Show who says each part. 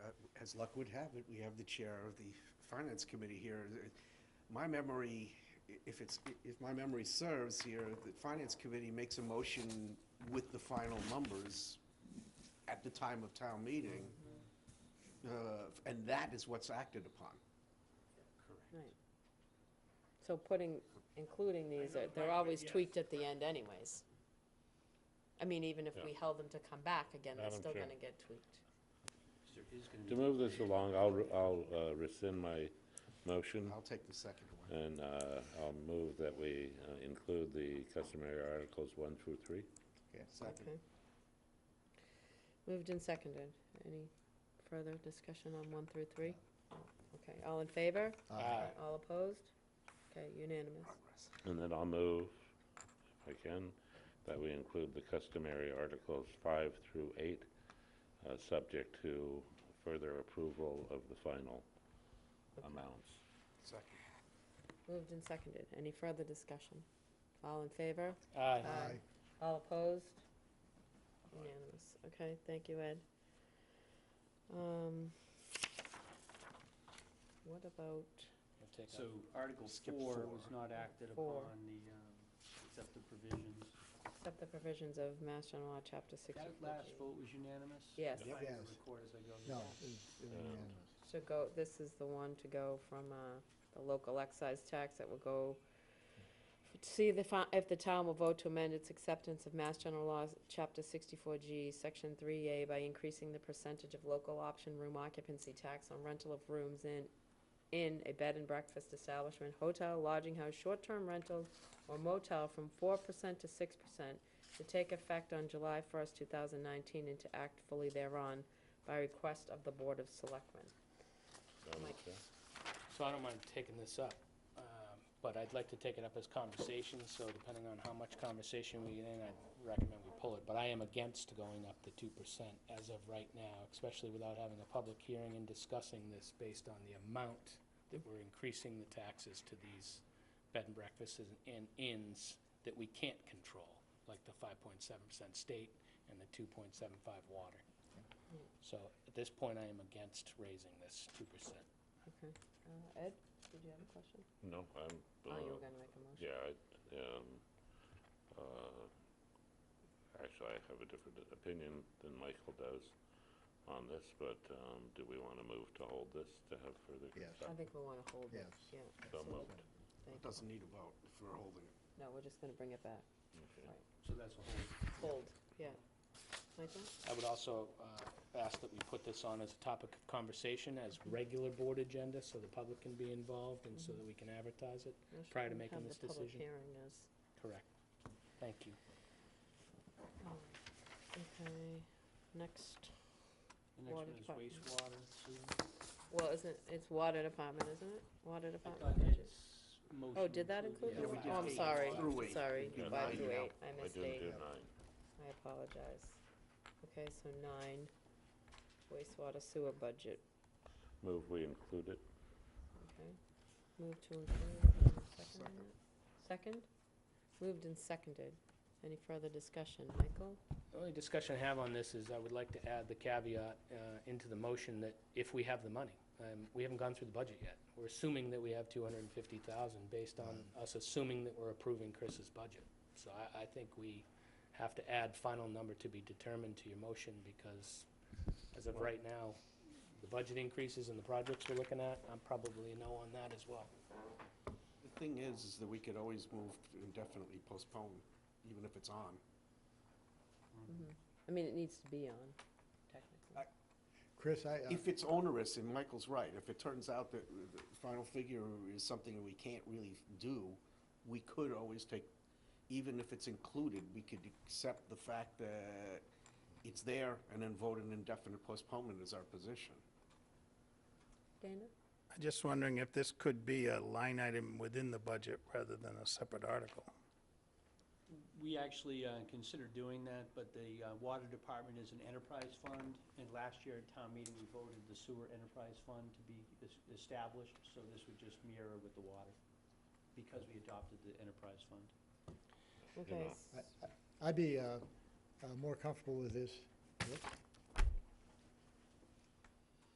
Speaker 1: uh, as luck would have it, we have the chair of the finance committee here. My memory, i- if it's, if my memory serves here, the finance committee makes a motion with the final numbers at the time of town meeting, uh, and that is what's acted upon.
Speaker 2: Right. So putting, including these, uh, they're always tweaked at the end anyways. I mean, even if we held them to come back again, they're
Speaker 3: Madam
Speaker 2: still
Speaker 3: Chair.
Speaker 2: gonna get tweaked.
Speaker 1: There is gonna
Speaker 3: To move this along, I'll, I'll uh, rescind my motion,
Speaker 1: I'll take the second one.
Speaker 3: and uh, I'll move that we uh, include the customary articles one through three.
Speaker 1: Okay, second.
Speaker 2: Okay. Moved and seconded. Any further discussion on one through three? Okay, all in favor?
Speaker 1: Aye.
Speaker 2: All opposed? Okay, unanimous.
Speaker 1: Progress.
Speaker 3: And then I'll move, if I can, that we include the customary articles five through eight, uh, subject to further approval of the final amounts.
Speaker 1: Second.
Speaker 2: Moved and seconded. Any further discussion? All in favor?
Speaker 4: Aye.
Speaker 2: Aye. All opposed? Unanimous. Okay, thank you, Ed. Um, What about,
Speaker 5: So Article
Speaker 1: Skip
Speaker 5: four
Speaker 1: four.
Speaker 5: was not acted
Speaker 2: Four.
Speaker 5: upon, the, um, except the provisions.
Speaker 2: accept the provisions of Mass General Law, Chapter 64?
Speaker 5: That last vote was unanimous?
Speaker 2: Yes.
Speaker 5: I will
Speaker 4: Yes.
Speaker 5: Record as I go.
Speaker 4: No, it was- it was
Speaker 3: Um,
Speaker 4: unanimous.
Speaker 2: So go, this is the one to go from uh, the local excise tax that will go, see the, fi- if the town will vote to amend its acceptance of Mass General Laws, Chapter 64G, Section 3A, by increasing the percentage of local option room occupancy tax on rental of rooms in, in a bed and breakfast establishment, hotel, lodging house, short-term rentals, or motel from 4% to 6% to take effect on July 1st, 2019, and to act fully thereon by request of the Board of Selectmen.
Speaker 3: Madam
Speaker 2: Mike.
Speaker 3: Chair?
Speaker 4: So I don't mind taking this up, um, but I'd like to take it up as conversation, so depending on how much conversation we get in, I'd recommend we pull it. But I am against going up to two percent as of right now, especially without having a public hearing and discussing this based on the amount that we're increasing the taxes to these bed and breakfasts and- and inns that we can't control, like the five point seven percent state and the two point seven five water. So at this point, I am against raising this two percent.
Speaker 2: Okay. Uh, Ed, did you have a question?
Speaker 3: No,
Speaker 2: Oh,
Speaker 3: I'm.
Speaker 2: you
Speaker 3: uh,
Speaker 2: were gonna make a motion.
Speaker 3: Yeah, I, um, uh, actually, I have a different opinion than Michael does on this, but, um, do we want to move to hold this to have further
Speaker 4: Yes.
Speaker 2: I
Speaker 3: discussion?
Speaker 2: think we wanna hold it.
Speaker 4: Yes.
Speaker 2: Yeah,
Speaker 3: So moved.
Speaker 2: thank
Speaker 1: It
Speaker 2: you.
Speaker 1: doesn't need a vote if we're holding it.
Speaker 2: No, we're just gonna bring it back.
Speaker 3: Okay.
Speaker 5: So that's a whole.
Speaker 2: Hold, yeah. Michael?
Speaker 4: I would also uh, ask that we put this on as a topic of conversation, as regular board agenda, so the public can be involved and so that we can advertise it.
Speaker 2: No, she
Speaker 4: Prior to
Speaker 2: didn't
Speaker 4: making
Speaker 2: have
Speaker 4: this
Speaker 2: the public
Speaker 4: decision.
Speaker 2: hearing is.
Speaker 4: Correct. Thank you.
Speaker 2: Okay, next.
Speaker 5: The next one
Speaker 2: Water
Speaker 5: is
Speaker 2: department.
Speaker 5: wastewater, sewer.
Speaker 2: Well, isn't, it's water department, isn't it? Water
Speaker 5: I thought
Speaker 2: department. budget.
Speaker 5: Ed's motion.
Speaker 2: Oh, did that include?
Speaker 5: included
Speaker 1: Yeah,
Speaker 2: the
Speaker 1: we
Speaker 2: wa-
Speaker 1: did
Speaker 2: Oh, I'm
Speaker 1: eight.
Speaker 2: sorry,
Speaker 1: Through eight.
Speaker 2: sorry.
Speaker 1: Yeah,
Speaker 2: Five
Speaker 1: nine
Speaker 2: to
Speaker 1: now.
Speaker 2: eight, I
Speaker 3: I
Speaker 2: missed
Speaker 3: didn't
Speaker 2: eight.
Speaker 3: do nine.
Speaker 2: I apologize. Okay, so nine, wastewater sewer budget.
Speaker 3: Move we include it.
Speaker 2: Okay, move to include, and second on
Speaker 1: Second.
Speaker 2: that? Second? Moved and seconded. Any further discussion, Michael?
Speaker 4: The only discussion I have on this is I would like to add the caveat uh, into the motion that if we have the money. Um, We haven't gone through the budget yet. We're assuming that we have 250,000 based on us assuming that we're approving Chris's budget. So I, I think we have to add final number to be determined to your motion because as of right now, the budget increases and the projects we're looking at, I'm probably a no on that as well.
Speaker 1: The thing is, is that we could always move to indefinitely postpone, even if it's on.
Speaker 2: I mean, it needs to be on, technically.
Speaker 4: Chris, I,
Speaker 1: If it's onerous, and Michael's right, if it turns out that the final figure is something that we can't really do, we could always take, even if it's included, we could accept the fact that it's there and then vote an indefinite postponement as our position.
Speaker 2: Dana?
Speaker 6: I'm just wondering if this could be a line item within the budget rather than a separate article.
Speaker 5: We actually uh, considered doing that, but the uh, water department is an enterprise fund, and last year at town meeting, we voted the sewer enterprise fund to be es- established, so this would just mirror with the water, because we adopted the enterprise fund.
Speaker 2: Okay,
Speaker 3: know,
Speaker 2: s-
Speaker 4: I-
Speaker 7: I'd be uh, uh, more comfortable with this